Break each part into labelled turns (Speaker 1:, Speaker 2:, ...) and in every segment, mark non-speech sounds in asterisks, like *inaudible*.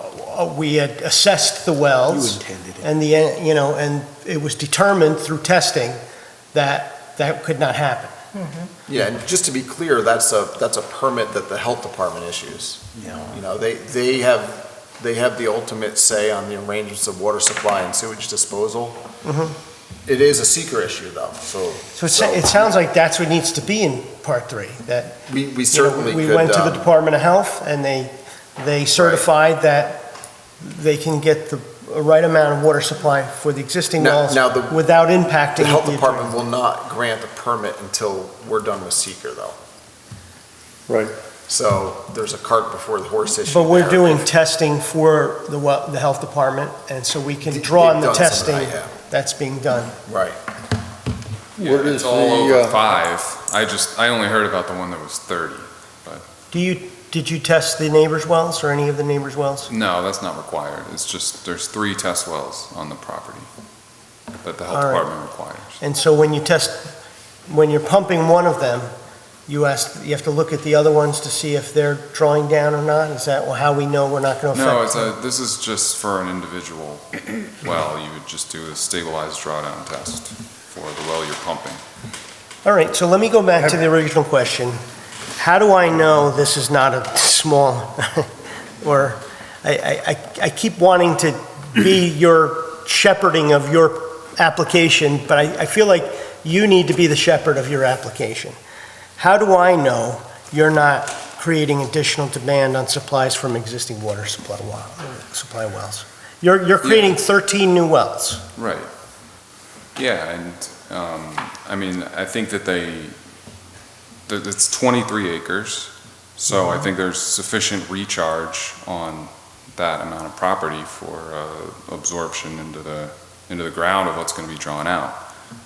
Speaker 1: uh, we had assessed the wells.
Speaker 2: intended
Speaker 1: And the, uh, you know, and it was determined through testing that that could not happen.
Speaker 3: Yeah, and just to be clear, that's a, that's a permit that the health department issues. You know, they, they have, they have the ultimate say on the arrangements of water supply and sewage disposal.
Speaker 1: Mhm.
Speaker 3: It is a seeker issue though, so
Speaker 1: So it sa- it sounds like that's what needs to be in part three, that,
Speaker 3: we, we
Speaker 1: you know,
Speaker 3: certainly
Speaker 1: we
Speaker 3: could,
Speaker 1: went to the
Speaker 3: um,
Speaker 1: Department of Health and they, they certified that they can get the right amount of water supply for the existing
Speaker 3: now,
Speaker 1: wells
Speaker 3: now the,
Speaker 1: without impacting.
Speaker 3: the health
Speaker 1: the-
Speaker 3: department will not grant a permit until we're done with seeker though.
Speaker 2: Right.
Speaker 3: So there's a cart before the horse issue.
Speaker 1: But we're
Speaker 3: there.
Speaker 1: doing testing for the, wel- the health department, and so we can
Speaker 3: They've
Speaker 1: draw on the
Speaker 3: done some
Speaker 1: testing
Speaker 3: of that,
Speaker 1: that's being done.
Speaker 3: yeah, Right.
Speaker 2: What
Speaker 4: Yeah,
Speaker 2: is
Speaker 4: it's all
Speaker 2: the,
Speaker 4: over
Speaker 2: uh,
Speaker 4: five. I just, I only heard about the one that was 30.
Speaker 1: Do you, did you test the neighbors' wells or any of the neighbors' wells?
Speaker 4: No, that's not required. It's just, there's three test wells on the property that the health
Speaker 1: All right.
Speaker 4: department requires.
Speaker 1: And so when you test, when you're pumping one of them, you ask, you have to look at the other ones to see if they're drawing down or not? Is that how we know we're not going to affect?
Speaker 4: No, it's a, this is just for an individual well. You would just do a stabilized drawdown test for the well you're pumping.
Speaker 1: All right, so let me go back to the original question. How do I know this is not a small, *laughs* or, I- I, I, I keep wanting to be your shepherding of your application, but I, I feel like you need to be the shepherd of your application. How do I know you're not creating additional demand on supplies from existing water supply, wa- supply wells? You're, you're creating 13 new wells.
Speaker 4: Right. Yeah, and, um, I mean, I think that they, that it's twenty-three acres, so I think there's sufficient recharge on that amount of property for, uh, absorption into the, into the ground of what's gonna be drawn out.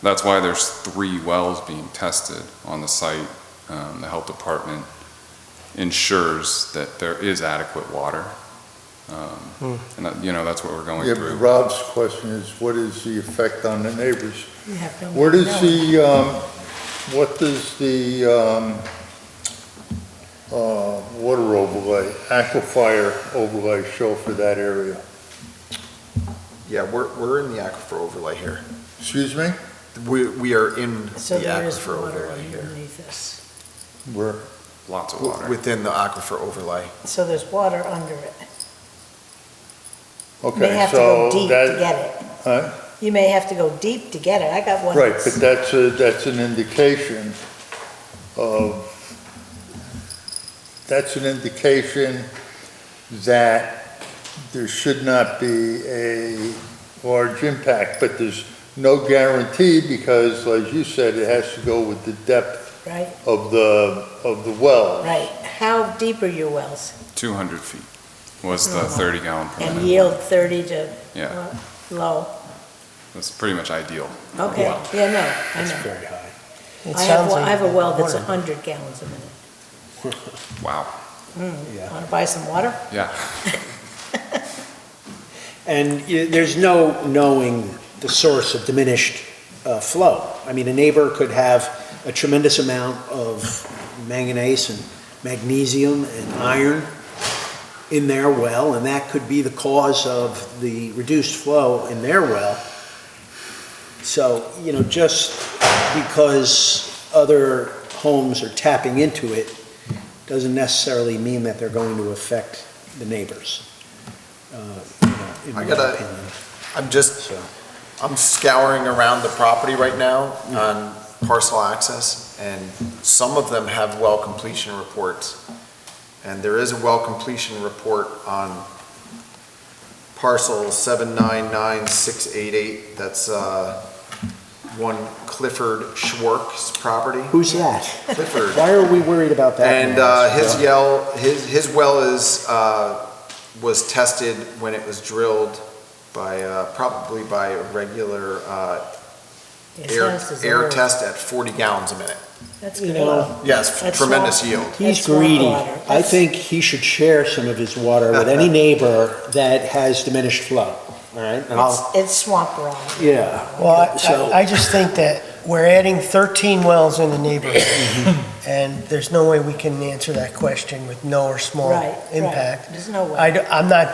Speaker 4: That's why there's three wells being tested on the site. Um, the health department ensures that there is adequate water.
Speaker 1: Hmm.
Speaker 4: Um, and that, you know, that's what we're going
Speaker 5: Yeah, but
Speaker 4: through.
Speaker 5: Rob's question is, what is the effect on the neighbors?
Speaker 6: You have no way
Speaker 5: Where
Speaker 6: to
Speaker 5: does
Speaker 6: know.
Speaker 5: the, um, what does the, um, uh, water overlay, aquifer overlay show for that area?
Speaker 3: Yeah, we're, we're in the aquifer overlay here.
Speaker 5: Excuse me?
Speaker 3: We, we are in the
Speaker 6: So there is
Speaker 3: aquifer
Speaker 6: water
Speaker 3: overlay here.
Speaker 6: underneath this.
Speaker 5: Where?
Speaker 4: Lots of water.
Speaker 3: W- Within the aquifer overlay.
Speaker 6: So there's water under it. You may
Speaker 5: Okay,
Speaker 6: have to
Speaker 5: so
Speaker 6: go deep to
Speaker 5: that,
Speaker 6: get it.
Speaker 5: Huh?
Speaker 6: You may have to go deep to get it. I got one.
Speaker 5: right, but
Speaker 6: that's-
Speaker 5: that's a, that's an indication of, that's an indication that there should not be a large impact, but there's no guarantee because, as you said, it has to go with the depth
Speaker 6: Right,
Speaker 5: of the, of the well.
Speaker 6: right. How deep are your wells?
Speaker 4: 200 feet was the
Speaker 6: Mhm.
Speaker 4: 30 gallon per minute.
Speaker 6: And yield 30 to
Speaker 4: Yeah,
Speaker 6: uh, low?
Speaker 4: that's pretty much ideal. for a
Speaker 6: Okay,
Speaker 4: well.
Speaker 6: yeah, no, I
Speaker 2: That's
Speaker 6: know.
Speaker 2: very high.
Speaker 1: It
Speaker 6: I have,
Speaker 1: sounds
Speaker 6: one- I
Speaker 1: like
Speaker 6: have a well that's
Speaker 1: water.
Speaker 6: 100 gallons a minute.
Speaker 4: Wow,
Speaker 2: Yeah.
Speaker 6: Want to buy some water?
Speaker 4: yeah.
Speaker 2: And y- there's no knowing the source of diminished uh, flow. I mean, a neighbor could have a tremendous amount of manganese and magnesium and iron in their well, and that could be the cause of the reduced flow in their well. So, you know, just because other homes are tapping into it doesn't necessarily mean that they're going to affect the neighbors. uh, you know, in my
Speaker 3: I gotta-
Speaker 2: opinion.
Speaker 3: I'm just, I'm scouring around the property right now on parcel access, and some of them have well completion reports. And there is a well completion report on parcel seven nine nine six eight eight, that's, uh, one Clifford Schwartz property.
Speaker 2: Who's that?
Speaker 3: Clifford.
Speaker 2: Why are we worried about that?
Speaker 3: And
Speaker 2: now?
Speaker 3: uh, his yell, his, his well is, uh, was tested when it was drilled by, uh, probably by a regular uh,
Speaker 6: It
Speaker 3: air,
Speaker 6: sounds as
Speaker 3: air
Speaker 6: though-
Speaker 3: test at 40 gallons a minute.
Speaker 6: That's
Speaker 2: You
Speaker 6: good.
Speaker 2: know,
Speaker 3: Yes,
Speaker 6: That's
Speaker 3: tremendous
Speaker 6: small.
Speaker 3: yield.
Speaker 2: He's
Speaker 6: That's not
Speaker 2: greedy.
Speaker 6: water.
Speaker 2: I think he should share some of his water with
Speaker 3: *laughs*
Speaker 2: any neighbor that has diminished flow, all right? And I'll,
Speaker 6: It's- It's swamp rock.
Speaker 2: yeah.
Speaker 1: Well, I-
Speaker 2: So-
Speaker 1: I, I just think that we're adding 13 wells in the neighborhood, and there's no way we can answer that question with no or small
Speaker 6: Right, right.
Speaker 1: impact.
Speaker 6: There's no way.
Speaker 1: I, am not